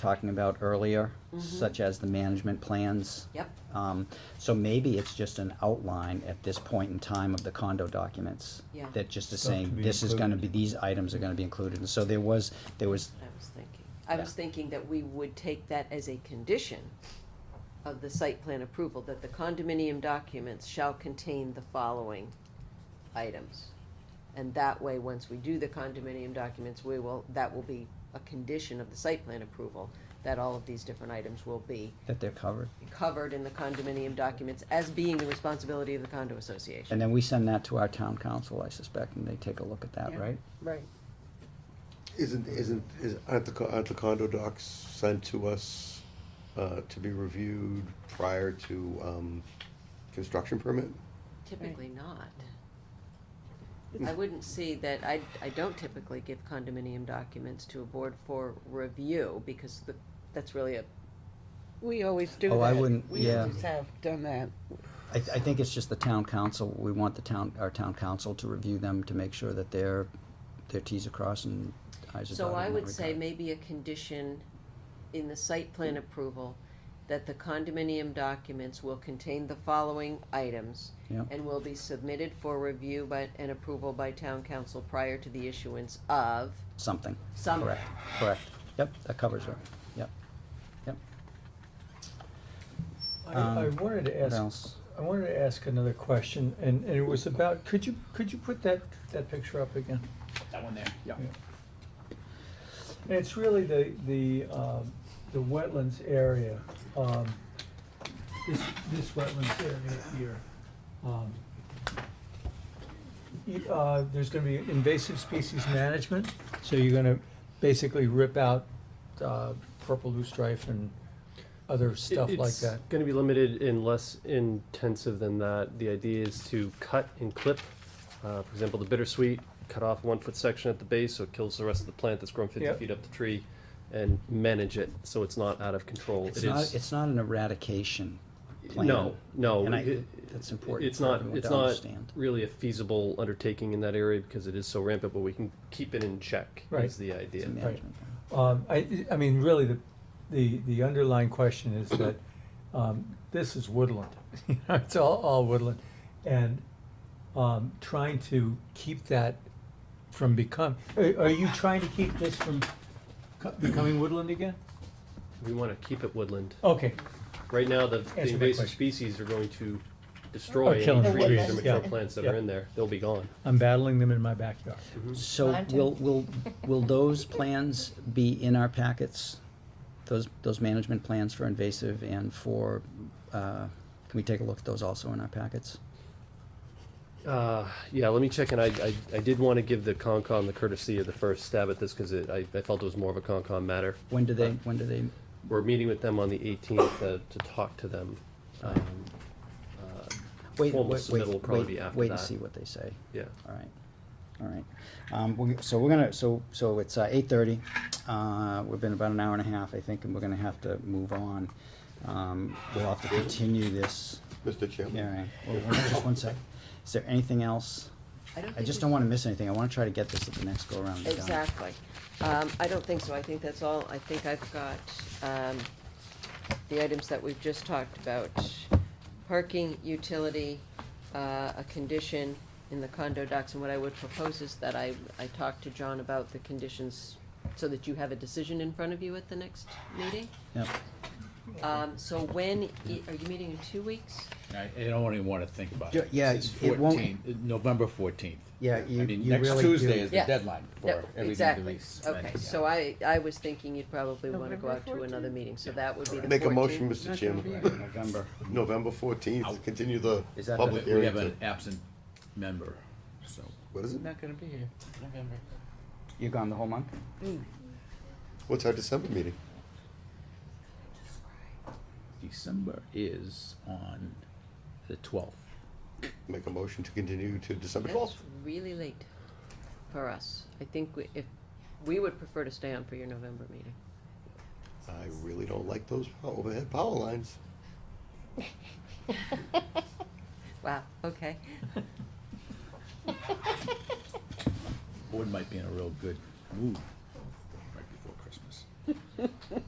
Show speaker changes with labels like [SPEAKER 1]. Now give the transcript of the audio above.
[SPEAKER 1] talking about earlier, such as the management plans.
[SPEAKER 2] Mm-hmm. Yep.
[SPEAKER 1] Um, so maybe it's just an outline at this point in time of the condo documents.
[SPEAKER 2] Yeah.
[SPEAKER 1] That just is
[SPEAKER 3] Stuff to
[SPEAKER 1] saying,
[SPEAKER 3] be
[SPEAKER 1] this is gonna be,
[SPEAKER 3] included.
[SPEAKER 1] these items are gonna be included, and so there was, there was,
[SPEAKER 2] I was thinking, I was
[SPEAKER 1] Yeah.
[SPEAKER 2] thinking that we would take that as a condition of the site plan approval, that the condominium documents shall contain the following items. And that way, once we do the condominium documents, we will, that will be a condition of the site plan approval, that all of these different items will be
[SPEAKER 1] that they're covered.
[SPEAKER 2] covered in the condominium documents as being the responsibility of the condo association.
[SPEAKER 1] And then we send that to our town council, I suspect, and they take a look at that,
[SPEAKER 2] Yeah.
[SPEAKER 1] right?
[SPEAKER 2] Right.
[SPEAKER 4] Isn't, isn't, is, aren't the, co- aren't the condo docs sent to us, uh, to be reviewed prior to, um, construction permit?
[SPEAKER 2] Typically not. I wouldn't see that, I, I don't typically give condominium documents to a board for review, because the, that's really a,
[SPEAKER 5] We always do that.
[SPEAKER 1] Oh, I wouldn't-
[SPEAKER 5] We
[SPEAKER 1] yeah.
[SPEAKER 5] always have done that.
[SPEAKER 1] I, I think it's just the town council, we want the town, our town council to review them to make sure that their, their Ts are crossed and Is are dotted.
[SPEAKER 2] so I
[SPEAKER 1] in that
[SPEAKER 2] would say
[SPEAKER 1] regard.
[SPEAKER 2] maybe a condition in the site plan approval that the condominium documents will contain the following items
[SPEAKER 1] Yeah.
[SPEAKER 2] and will be submitted for review by, and approval by town council prior to the issuance of
[SPEAKER 1] Something,
[SPEAKER 2] some.
[SPEAKER 1] correct, correct, yep, that covers it, yep, yep.
[SPEAKER 3] I,
[SPEAKER 1] Um,
[SPEAKER 3] I wanted to
[SPEAKER 1] What
[SPEAKER 3] ask,
[SPEAKER 1] else?
[SPEAKER 3] I wanted to ask another question, and, and it was about, could you, could you put that, that picture up again?
[SPEAKER 6] That one there, yeah.
[SPEAKER 3] And It's really the, the, um, the wetlands area, um, this, this wetlands area here. Um, y- Uh, there's gonna be invasive species management, so you're gonna basically rip out, uh, purple loosestrife and other stuff like that.
[SPEAKER 7] It's going to be limited and less intensive than that. The idea is to cut and clip. Uh, for example, the bittersweet, cut off one foot section at the base so it kills the rest of the plant that's grown 50
[SPEAKER 3] Yep.
[SPEAKER 7] feet up the tree and manage it so it's not out of control.
[SPEAKER 1] It's
[SPEAKER 7] It
[SPEAKER 1] not,
[SPEAKER 7] is-
[SPEAKER 1] it's not an eradication plan.
[SPEAKER 7] No, no.
[SPEAKER 1] And I-
[SPEAKER 7] it-
[SPEAKER 1] that's important
[SPEAKER 7] It's
[SPEAKER 1] for
[SPEAKER 7] not,
[SPEAKER 1] everyone
[SPEAKER 7] it's
[SPEAKER 1] to
[SPEAKER 7] not
[SPEAKER 1] understand.
[SPEAKER 7] really a feasible undertaking in that area because it is so rampant, but we can keep it in check
[SPEAKER 3] Right.
[SPEAKER 7] is the idea.
[SPEAKER 1] It's a management plan.
[SPEAKER 3] Um, I, I mean, really, the, the, the underlying question is that, um, this is woodland. You know, It's all, all woodland. And, um, trying to keep that from become, are, are you trying to keep this from co- becoming woodland again?
[SPEAKER 7] We want to keep it woodland.
[SPEAKER 3] Okay,
[SPEAKER 7] Right now, the the
[SPEAKER 3] my
[SPEAKER 7] invasive
[SPEAKER 3] question.
[SPEAKER 7] species are going to destroy
[SPEAKER 3] killing
[SPEAKER 7] any trees
[SPEAKER 5] trees,
[SPEAKER 7] and
[SPEAKER 3] yeah.
[SPEAKER 7] mature plants that are
[SPEAKER 3] Yeah.
[SPEAKER 7] in there. They'll be gone.
[SPEAKER 3] I'm battling them in my backyard.
[SPEAKER 1] So
[SPEAKER 5] Mine too.
[SPEAKER 1] will, will, will those plans be in our packets? Those, those management plans for invasive and for, uh, can we take a look at those also in our packets?
[SPEAKER 7] Uh, yeah, let me check, and I, I, I did want to give the Concom the courtesy of the first stab at this, because it, I, I felt it was more of a Concom matter.
[SPEAKER 1] When do
[SPEAKER 7] Uh,
[SPEAKER 1] they, when do they,
[SPEAKER 7] We're meeting with them on the eighteenth uh, to, to talk to them. Um, uh,
[SPEAKER 1] wait, wait,
[SPEAKER 7] Formal
[SPEAKER 1] wait,
[SPEAKER 7] submittal will probably be
[SPEAKER 1] wait,
[SPEAKER 7] after
[SPEAKER 1] wait and
[SPEAKER 7] that.
[SPEAKER 1] see what they say.
[SPEAKER 7] Yeah,
[SPEAKER 1] All right, all right. Um, we, so we're gonna, so, so it's eight thirty. Uh, we've been about an hour and a half, I think, and we're gonna have to move on. Um, we'll have to continue this
[SPEAKER 4] Mr. Chairman?
[SPEAKER 1] hearing. Well, hold on just one sec. Is there anything else? I
[SPEAKER 2] think
[SPEAKER 1] just
[SPEAKER 2] we-
[SPEAKER 1] don't wanna miss anything. I wanna try to get this at the next go-around. done.
[SPEAKER 2] Exactly. Um, I don't think so. I think that's all. I think I've got, um, the items that we've just talked about. Parking, utility, uh, a condition in the condo docs, and what I would propose is that I, I talk to John about the conditions so that you have a decision in front of you at the next meeting.
[SPEAKER 1] Yep.
[SPEAKER 2] Um, so when, i- are you meeting in two weeks?
[SPEAKER 6] I, I don't even wanna think about
[SPEAKER 1] Yeah,
[SPEAKER 6] it.
[SPEAKER 1] yeah,
[SPEAKER 6] It's
[SPEAKER 1] it won't-
[SPEAKER 6] 14 November fourteenth.
[SPEAKER 1] Yeah, you-
[SPEAKER 6] I mean,
[SPEAKER 1] you
[SPEAKER 6] next
[SPEAKER 1] really
[SPEAKER 6] Tuesday
[SPEAKER 1] do.
[SPEAKER 6] is the
[SPEAKER 2] Yeah.
[SPEAKER 6] deadline
[SPEAKER 2] No,
[SPEAKER 6] for everything to
[SPEAKER 2] exactly.
[SPEAKER 6] be submitted.
[SPEAKER 2] Okay,
[SPEAKER 6] yeah.
[SPEAKER 2] so I, I was thinking you'd probably wanna go
[SPEAKER 5] November
[SPEAKER 2] out to another
[SPEAKER 5] 14th?
[SPEAKER 2] meeting, so that would be the
[SPEAKER 4] Make a motion,
[SPEAKER 2] 14th.
[SPEAKER 4] Mr. Chairman,
[SPEAKER 6] Right, November,
[SPEAKER 4] November fourteenth, continue the
[SPEAKER 1] Is that
[SPEAKER 6] we
[SPEAKER 4] public
[SPEAKER 6] we
[SPEAKER 4] hearing
[SPEAKER 6] have
[SPEAKER 4] to,
[SPEAKER 6] an absent member, so.
[SPEAKER 4] what is it?
[SPEAKER 6] Not gonna be here, November.
[SPEAKER 1] You're gone the whole month?
[SPEAKER 4] What's our December meeting?
[SPEAKER 6] December is on the twelfth.
[SPEAKER 4] Make a motion to continue to December
[SPEAKER 2] That's
[SPEAKER 4] twelfth?
[SPEAKER 2] really late for us. I think we- if, we would prefer to stay on for your November meeting.
[SPEAKER 4] I really don't like those pow- overhead power lines.
[SPEAKER 2] Wow, okay.
[SPEAKER 6] Board might be in a real good mood right before Christmas.